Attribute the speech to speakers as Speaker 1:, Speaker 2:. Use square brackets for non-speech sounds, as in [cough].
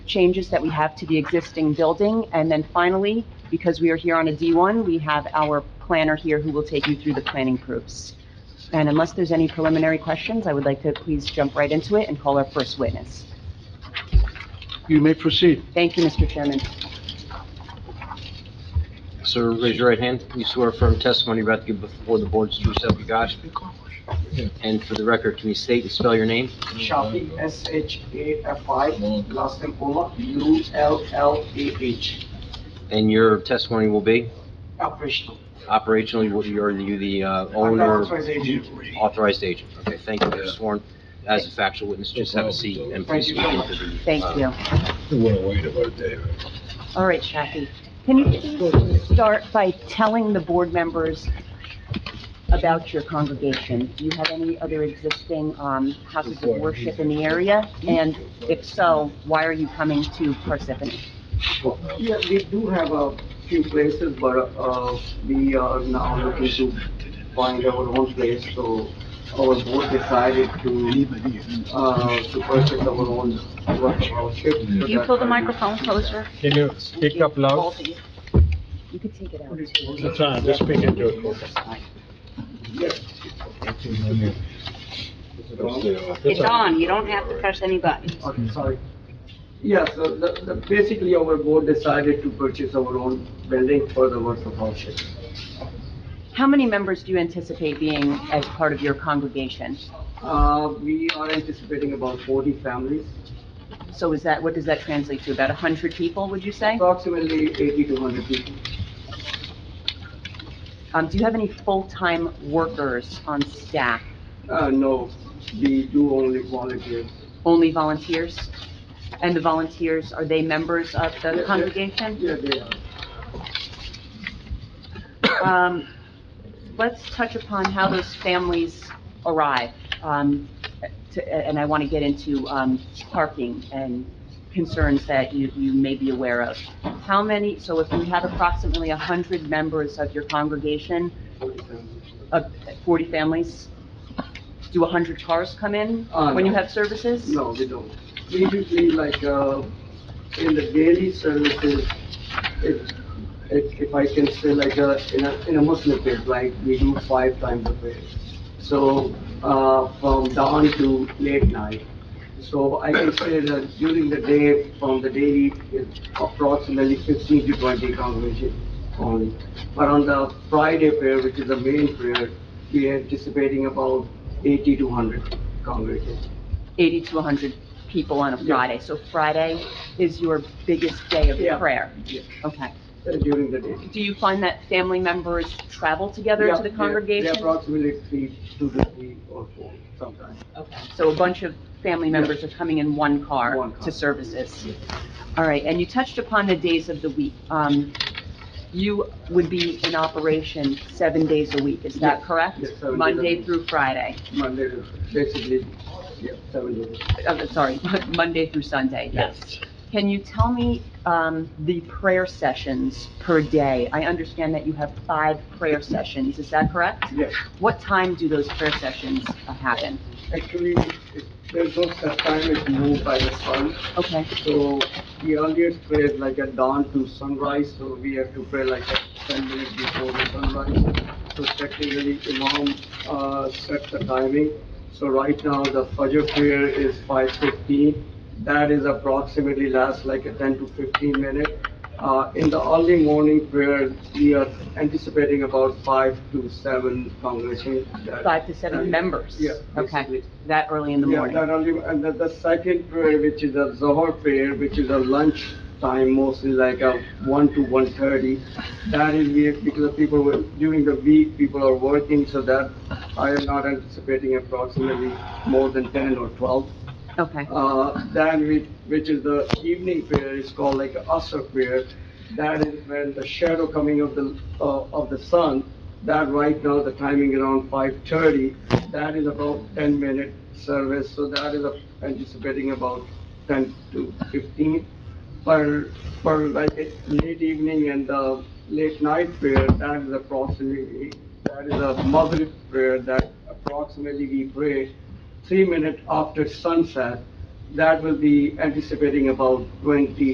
Speaker 1: changes that we have to the existing building. And then finally, because we are here on a D1, we have our planner here who will take you through the planning proofs. And unless there's any preliminary questions, I would like to please jump right into it and call our first witness.
Speaker 2: You may proceed.
Speaker 1: Thank you, Mr. Chairman.
Speaker 3: Sir, raise your right hand. You swear a firm testimony you're about to give before the board's true self you got. And for the record, can you state and spell your name?
Speaker 4: Shafi, S H A F I, last name Ullah, U L L A H,
Speaker 3: And your testimony will be
Speaker 4: operational.
Speaker 3: operationally, what you're, you the uh,
Speaker 4: I'm the
Speaker 3: owner,
Speaker 4: authorized agent.
Speaker 3: authorized agent. Okay, thank you. You're sworn as a factual witness. Just have a seat and please speak into the. uh,
Speaker 1: Thank you.
Speaker 5: It went away in about a day.
Speaker 1: All right, Shafi, can you please start by telling the board members about your congregation? Do you have any other existing um, houses of worship in the area? And if so, why are you coming to Parsippany?
Speaker 4: Yeah, we do have a few places, but, uh, we are now looking to find our own place, so our board decided to, uh, to purchase our own workshop.
Speaker 5: Can
Speaker 6: Can you pull the microphone closer?
Speaker 5: Can you speak up
Speaker 6: Both
Speaker 5: loud?
Speaker 6: of you.
Speaker 1: You could take it out.
Speaker 5: That's fine, just speak into it.
Speaker 6: It's on, you don't have to press any buttons.
Speaker 4: Okay, sorry. Yeah, so the, the, basically our board decided to purchase our own building for the work of our ship.
Speaker 1: How many members do you anticipate being as part of your congregation?
Speaker 4: Uh, we are anticipating about forty families,
Speaker 1: So is that, what does that translate to, about 100 people, would you say?
Speaker 4: approximately eighty to hundred people.
Speaker 1: Um, Do you have any full-time workers on staff?
Speaker 4: Uh, no, we do only volunteers.
Speaker 1: Only volunteers? And the volunteers, are they members of the congregation?
Speaker 4: Yeah, they are.
Speaker 1: Um, let's touch upon how those families arrive. Um, to, and I want to get into, um, parking and concerns that you, you may be aware of. How many, so if we have approximately a hundred members of your congregation, of forty families, do a hundred cars come in
Speaker 4: Uh,
Speaker 1: when you
Speaker 4: no.
Speaker 1: have services?
Speaker 4: No, we don't. We usually like, uh, in the daily services, if, if, if I can say like, uh, in a, in a Muslim prayer, like, we do five times a prayer. So, uh, from dawn to late night. So I can say that during the day, from the daily, it's approximately fifteen to twenty congregation only. But on the Friday prayer, which is the main prayer, we are anticipating about eighty to hundred congregation.
Speaker 1: Eighty to a hundred people on a
Speaker 4: Yeah.
Speaker 1: Friday. So Friday is your biggest day of
Speaker 4: Yeah.
Speaker 1: prayer?
Speaker 4: Yeah.
Speaker 1: Okay.
Speaker 4: uh, during the day.
Speaker 1: Do you find that family members travel together
Speaker 4: Yeah,
Speaker 1: to the
Speaker 4: yeah,
Speaker 1: congregation?
Speaker 4: yeah, Approximately three, two to three or four sometimes.
Speaker 1: Okay. So a bunch of family members are coming in one car
Speaker 4: One car.
Speaker 1: to services? All right, and you touched upon the days of the week. Um, You would be in operation seven days a week, is that
Speaker 4: Yes,
Speaker 1: correct?
Speaker 4: yes, seven days a
Speaker 1: Monday
Speaker 4: week.
Speaker 1: through Friday,
Speaker 4: Monday, to- basically, yeah, seven days.
Speaker 1: uh, sorry, [laughs] Monday through Sunday, yes. Can you tell me um, the prayer sessions per day? I understand that you have five prayer sessions, is that correct?
Speaker 4: Yes,
Speaker 1: What time do those prayer sessions uh, happen?
Speaker 4: actually, it- there's no such time it's moved by the sun.
Speaker 1: Okay,
Speaker 4: So the earliest prayer is like at dawn to sunrise, so we have to pray like at ten minutes before the sunrise. So technically, Imam uh, sets the timing. So right now, the Fajr prayer is five fifteen. That is approximately lasts like a ten to fifteen minute. Uh, In the early morning prayer, we are anticipating about five to seven congregation. that-
Speaker 1: five to seven members?
Speaker 4: Uh, Yeah,
Speaker 1: Okay,
Speaker 4: basically.
Speaker 1: that early in the
Speaker 4: Yeah, that
Speaker 1: morning?
Speaker 4: only, and the, the second prayer, which is a Zohar prayer, which is a lunch time, mostly like a one to one thirty. That is we, because the people were, during the week, people are working, so that I am not anticipating approximately more than ten or twelve.
Speaker 1: Okay,
Speaker 4: Uh, then we, which is the evening prayer, is called like a Asr prayer. That is when the shadow coming of the, uh, of the sun, that right now, the timing around five thirty, that is about ten minute service, so that is uh, anticipating about ten to fifteen. Per, per like uh, late evening and the late night prayer, that is approximately, that is a Maghrib prayer that approximately we pray three minutes after sunset, that will be anticipating about twenty